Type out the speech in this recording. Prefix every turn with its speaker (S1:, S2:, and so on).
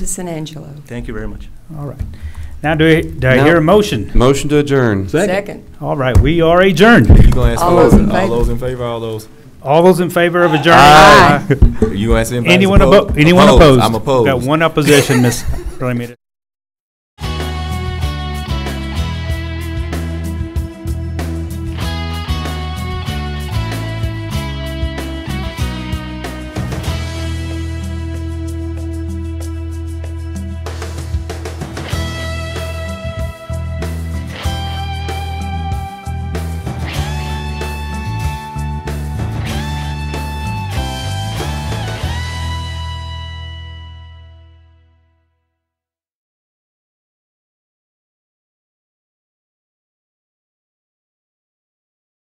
S1: Citizen Angelo.
S2: Thank you very much.
S3: All right. Now, do I, do I
S4: No.
S3: hear a motion?
S4: Motion to adjourn.
S1: Second.
S3: All right, we are adjourned.
S5: You gonna ask
S1: All
S5: for
S1: those in
S5: all
S1: favor?
S5: those in favor, all those.
S3: All those in favor of adjourn?
S1: Aye.
S5: You gonna ask anybody?
S3: Anyone
S5: opposed?
S3: opposed? Anyone opposed?
S5: I'm opposed.
S3: Got one opposition, Ms. Ramirez.